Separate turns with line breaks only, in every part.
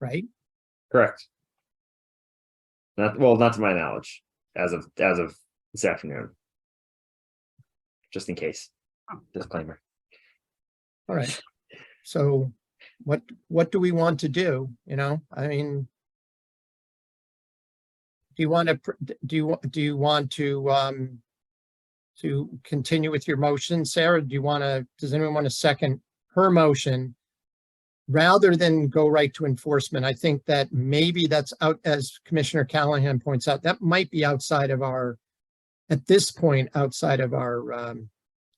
right?
Correct. Not, well, not to my knowledge, as of, as of this afternoon. Just in case, disclaimer.
All right. So what, what do we want to do? You know, I mean, do you want to, do you, wa- do you want to, um, to continue with your motion, Sarah? Do you want to, does anyone want to second her motion? Rather than go right to enforcement, I think that maybe that's out, as Commissioner Callahan points out, that might be outside of our, at this point, outside of our, um,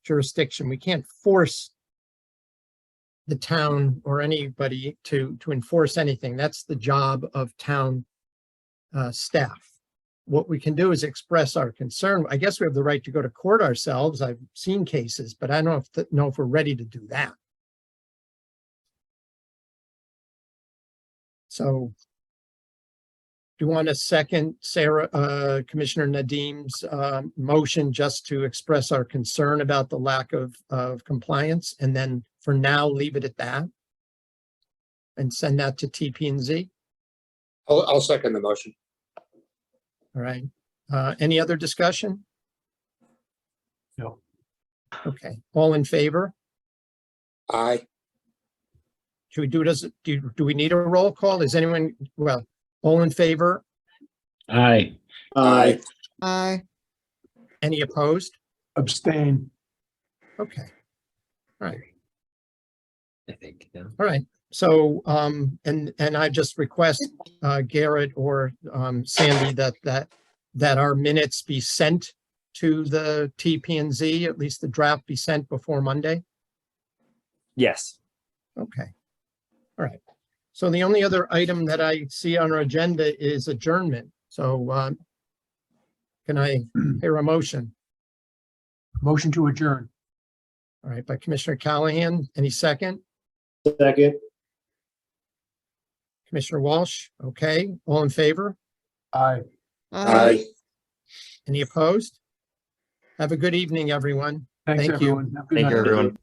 jurisdiction. We can't force the town or anybody to, to enforce anything. That's the job of town uh, staff. What we can do is express our concern. I guess we have the right to go to court ourselves. I've seen cases, but I don't know if th- know if we're ready to do that. So do you want a second, Sarah, uh, Commissioner Nadim's um, motion just to express our concern about the lack of, of compliance? And then for now, leave it at that? And send that to TP and Z?
I'll, I'll second the motion.
All right. Uh, any other discussion?
No.
Okay, all in favor?
Aye.
Should we do, does, do, do we need a roll call? Is anyone, well, all in favor?
Aye.
Aye.
Aye.
Any opposed?
Abstain.
Okay,
I think, yeah.
all right. So, um, and, and I just request, uh, Garrett or, um, Sandy that, that, that our minutes be sent to the TP and Z, at least the draft be sent before Monday?
Yes,
Okay. All right. So the only other item that I see on our agenda is adjournment. So, um, can I hear a motion?
Motion to adjourn.
All right, by Commissioner Callahan, any second?
Second.
Commissioner Walsh, okay, all in favor?
Aye.
Aye.
Any opposed? Have a good evening, everyone.
Thanks,
Thank you.
everyone. Have a good
thank you,
night.
everyone.